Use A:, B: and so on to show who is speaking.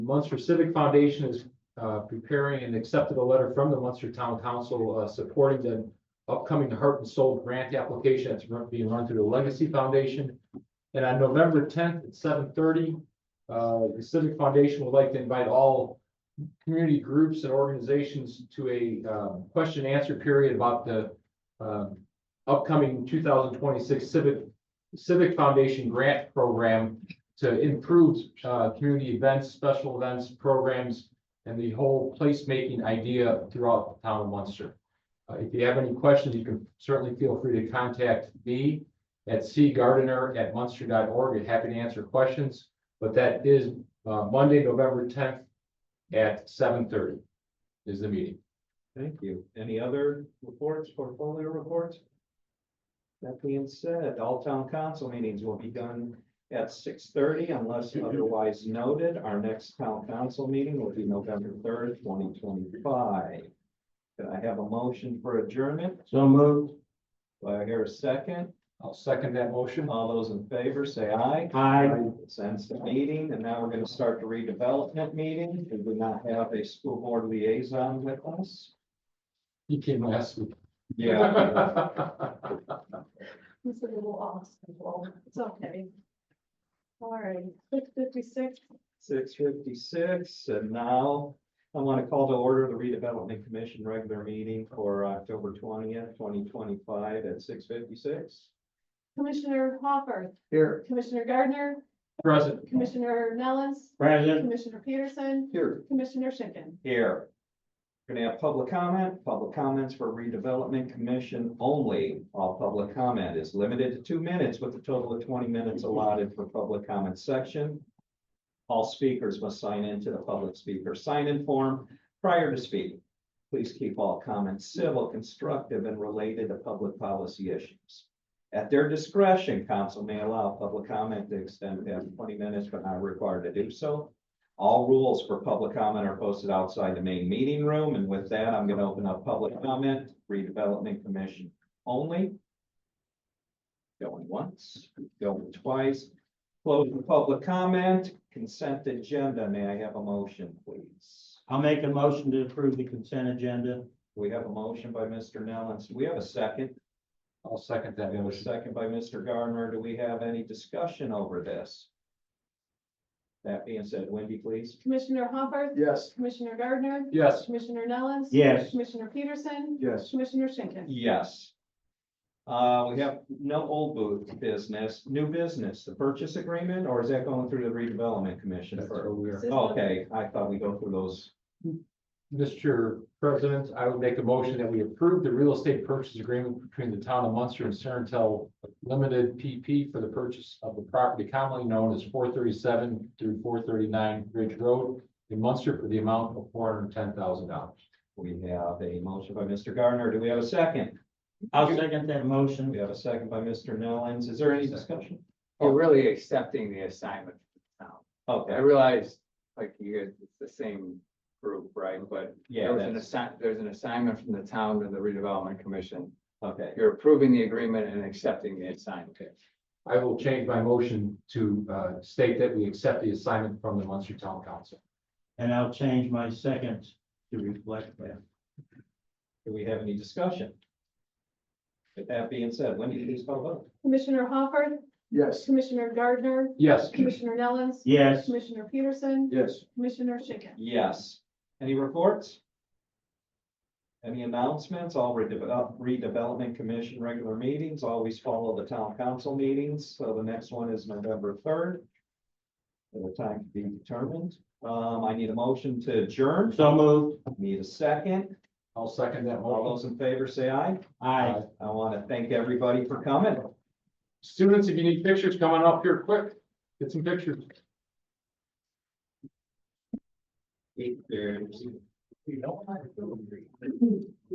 A: Munster Civic Foundation is uh, preparing and accepted a letter from the Munster Town Council uh, supporting the upcoming Heart and Soul Grant application that's run- being run through the Legacy Foundation. And on November tenth at seven thirty, uh, the Civic Foundation would like to invite all community groups and organizations to a um, question and answer period about the um, upcoming two thousand twenty-six Civic Civic Foundation Grant Program to improve uh, community events, special events, programs, and the whole placemaking idea throughout the town of Munster. Uh, If you have any questions, you can certainly feel free to contact me at cgardener@munster.org. I'm Happy to answer questions, but that is uh, Monday, November tenth at seven thirty is the meeting.
B: Thank you. Any other reports, portfolio reports? That being said, all town council meetings will be done at six thirty unless otherwise noted. Our next town council meeting will be November third, twenty twenty-five. Can I have a motion for adjournment?
C: So moved.
B: Do I hear a second?
A: I'll second that motion.
B: All those in favor, say aye.
C: Aye.
B: Sends the meeting, and now we're gonna start the redevelopment meeting. We do not have a school board liaison with us.
A: He came last week.
D: It's a little off, it's okay. All right, six fifty-six,
B: Six fifty-six, and now I want to call to order the redevelopment commission regular meeting for October twentieth, twenty twenty-five at six fifty-six.
D: Commissioner Hopper,
C: Here.
D: Commissioner Gardner,
A: Present.
D: Commissioner Nellis,
C: Present.
D: Commissioner Peterson,
B: Here.
D: Commissioner Schinkin.
B: Here. We're Gonna have public comment, public comments for redevelopment commission only. All public comment is limited to two minutes with a total of twenty minutes allotted for public comment section. All speakers must sign in to the public speaker sign-in form prior to speaking. Please keep all comments civil, constructive, and related to public policy issues. At their discretion, council may allow public comment to extend past twenty minutes, but not required to do so. All rules for public comment are posted outside the main meeting room, and with that, I'm gonna open up public comment, redevelopment commission only. Going once, going twice, close the public comment, consent agenda, may I have a motion, please?
C: I'll make a motion to approve the consent agenda.
B: We have a motion by Mr. Nellens, do we have a second?
A: I'll second that
B: We have a
A: motion.
B: second by Mr. Gardner, do we have any discussion over this? That being said, Wendy, please.
D: Commissioner Hopper,
C: Yes.
D: Commissioner Gardner,
A: Yes.
D: Commissioner Nellis.
C: Yes.
D: Commissioner Peterson,
C: Yes.
D: Commissioner Schinkin.
B: Yes. Uh, we have no old booth business, new business, the purchase agreement, or is that going through the redevelopment commission?
A: That's
B: first?
A: what we are.
D: This one.
B: Okay, I thought we go through those.
A: Mr. President, I would make a motion that we approve the real estate purchase agreement between the town of Munster and Cerntel Limited PP for the purchase of the property commonly known as four thirty-seven through four thirty-nine Ridge Road in Munster for the amount of four hundred and ten thousand dollars.
B: We have a motion by Mr. Gardner. Do we have a second?
C: I'll second that
B: We
C: motion.
B: have a second by Mr. Nellens. Is there any discussion? Oh.
E: You're really accepting the assignment. I
B: Okay,
E: realize, like, you guys, it's the same group, right? But
B: Mm-hmm. yeah,
E: there was an
B: that's,
E: assign, there's an assignment from the town to the redevelopment commission.
B: okay.
E: You're approving the agreement and accepting the assignment.
A: I will change my motion to uh, state that we accept the assignment from the Munster Town Council.
C: And I'll change my second to reflect that.
B: Do we have any discussion? With that being said, Wendy, please call vote.
D: Commissioner Hopper,
C: Yes.
D: Commissioner Gardner,
A: Yes.
D: Commissioner Nellis,
C: Yes.
D: Commissioner Peterson,
C: Yes.
D: Commissioner Schinkin.
B: Yes. Any reports? Any announcements? All redevelop, redevelopment commission regular meetings, always follow the town council meetings, so the next one is November third. At a time to be determined. Um, I need a motion to adjourn,
C: So moved.
B: need a second.
A: I'll second that
B: All
A: motion.
B: those in favor say aye.
C: Aye.
B: I want to thank everybody for coming.
A: Students, if you need pictures, come on up here quick. Get some pictures.
B: Eight thirty.